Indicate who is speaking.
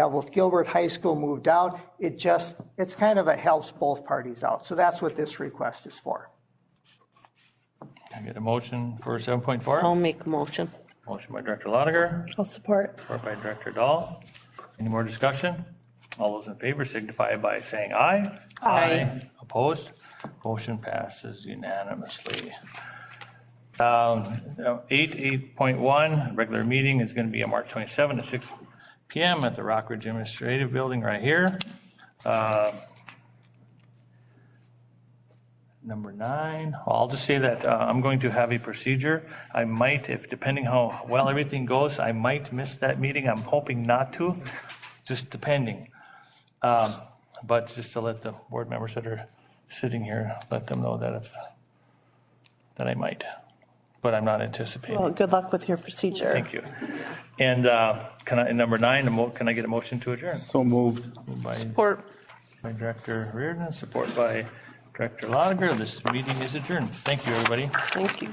Speaker 1: that with Gilbert High School moved out, it just, it's kind of, it helps both parties out. So that's what this request is for.
Speaker 2: Can I get a motion for 7.4?
Speaker 3: I'll make a motion.
Speaker 2: Motion by Director Lotiger,
Speaker 4: I'll support.
Speaker 2: support by Director Dahl. Any more discussion? All those in favor signify by saying aye. Opposed? Motion passes unanimously. Um, now, Eight, 8.1, regular meeting is going to be on March 27 at 6 PM at the Rockridge Administrative Building right here. Um, Number nine, I'll just say that uh, I'm going to have a procedure. I might, if depending how well everything goes, I might miss that meeting. I'm hoping not to, just depending. Um, But just to let the board members that are sitting here, let them know that if, that I might, but I'm not anticipating.
Speaker 4: Well, good luck with your procedure.
Speaker 2: Thank you. And uh, can I, and number nine, a mo- can I get a motion to adjourn?
Speaker 5: So moved.
Speaker 2: Moved By
Speaker 4: Support.
Speaker 2: by Director Reardon, support by Director Lotiger. This meeting is adjourned. Thank you, everybody.
Speaker 4: Thank you.